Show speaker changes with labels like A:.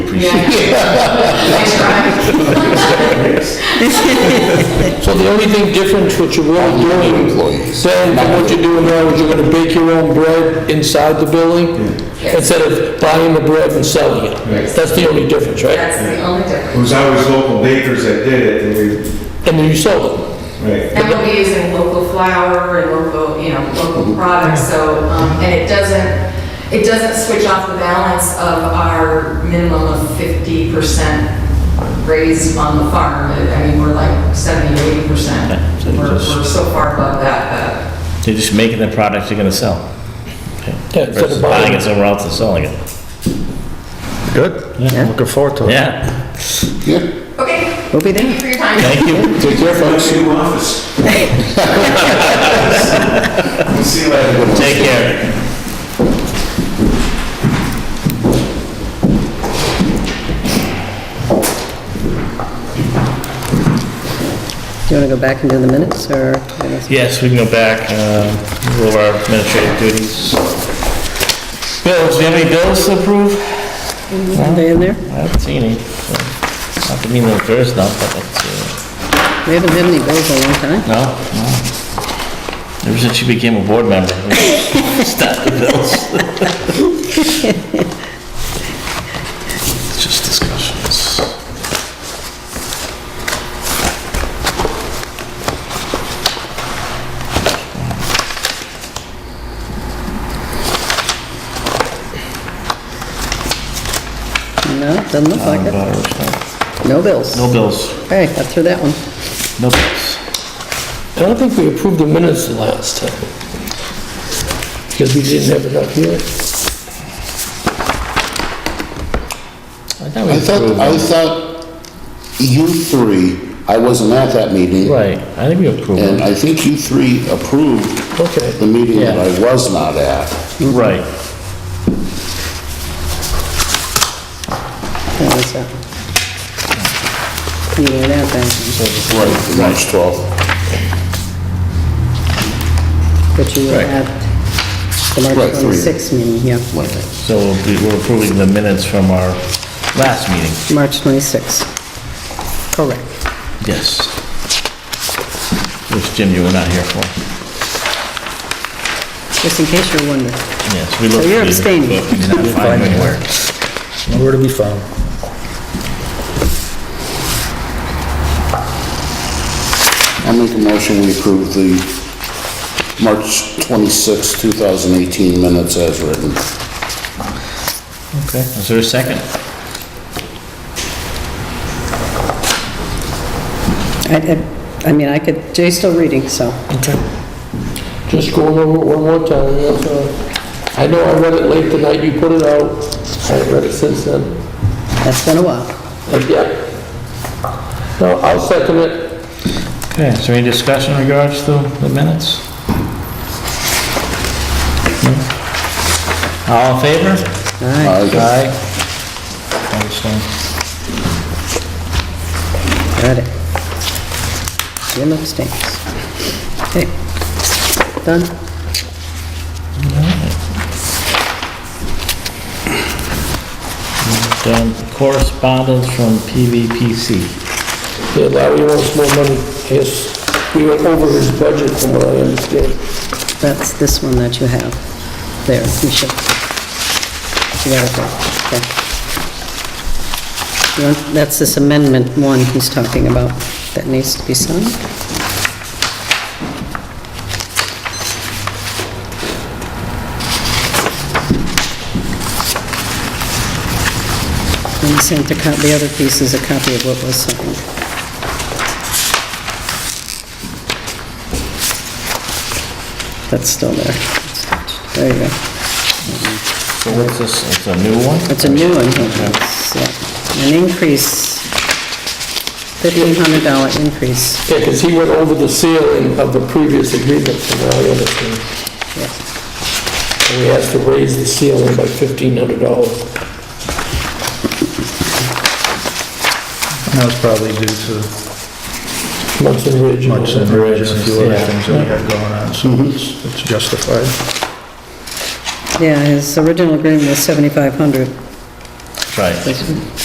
A: appreciate it.
B: So the only thing difference what you're really doing,
A: Employees.
B: then, than what you're doing now is you're gonna bake your own bread inside the building instead of buying the bread and selling it. That's the only difference, right?
C: That's the only
D: It
C: difference.
D: was always local bakers that did it, and
B: And then you sold it.
D: we, right.
C: And we'll be using local flour and local, you know, local products, so, um, and it doesn't, it doesn't switch off the balance of our minimum of fifty percent raised on the farm. I mean, we're like seventy, eighty percent.
E: so you
C: We're,
E: just-
C: we're so far above that,
E: They're just making the product they're gonna sell. Okay.
B: Yeah, instead of
E: Versus
B: buying
E: buying
B: it.
E: it somewhere else and selling it.
F: Good, looking forward to it.
E: Yeah,
A: Yeah,
C: that. Okay,
G: We'll be
C: thank you
G: there.
C: for your time.
E: thank you.
A: take care, folks.
D: New office. We'll see you later.
E: Take care.
G: Do you want to go back and do the minutes, or?
E: Yes, we can go back, uh, go over our administrative duties. Bills, do you have any bills to approve?
G: Are they in there?
E: I haven't seen any. so, Not to mean that there's none, but it's,
G: We haven't had any bills in a long time.
E: no, no. Ever since you became a board member, we stopped the bills. It's just discussions.
G: No, doesn't look like it. No bills.
E: No bills,
G: Okay, got through that one.
E: no bills.
B: I don't think we approved the minutes the last time. Because we didn't have it up here.
E: thought we
A: I thought, I thought you three, I wasn't at that meeting,
E: Right, I think we approved
A: and
E: it.
A: I think you three approved
B: Okay.
A: the meeting that I was not at.
E: Right.
G: That was that. You were out then,
A: Right. the March 12th.
G: but you were
E: Right.
G: at the
A: Right,
G: March
A: three.
G: 26th meeting, yeah.
E: So we'll be- we're approving the minutes from our last meeting.
G: March 26th. Correct.
E: Yes. Which, Jim, you were not here for.
G: Just in case you're wondering.
E: Yes, we looked.
G: So you're
E: through the
G: abstaining.
E: book, we did not find anywhere.
F: Nowhere to be found.
A: I'll make a motion, we approve the March 26th, 2018 minutes as written.
E: Okay, is there a second?
G: I- I, I mean, I could, Jay's still reading, so.
B: Just going over it one more time, that's all. I know I read it late tonight, you put it out. I haven't read it since then.
G: That's been a while.
B: And yeah. No, I'll second it.
E: Okay, is there any discussion in regards to the minutes? No? All in favor?
G: All right.
A: Aye.
E: Aye. I understand.
G: Got it. Jim abstains. Okay, done?
E: Done. Correspondence from PVPC.
B: Yeah, Larry wants more money. Yes, we went over his budget from what I understand.
G: That's this one that you have. There, you should. You got it there, okay. You want- That's this amendment one he's talking about that needs to be signed. And he sent the cop, the other piece is a copy of what was signed. That's still there. There you go.
E: So what's this, it's a new one?
G: It's a new one, it's uh, an increase, $1,500 increase.
B: Yeah, because he went over the ceiling of the previous agreement from what I understand. And we asked to raise the ceiling by fifteen hundred dollars.
F: That was probably due to
B: Munson Ridge.
F: much and Ridge and a few other
E: Yeah.
F: things that we have going on, so it's it's justified.
G: Yeah, his original agreement was 7,500.
E: Right.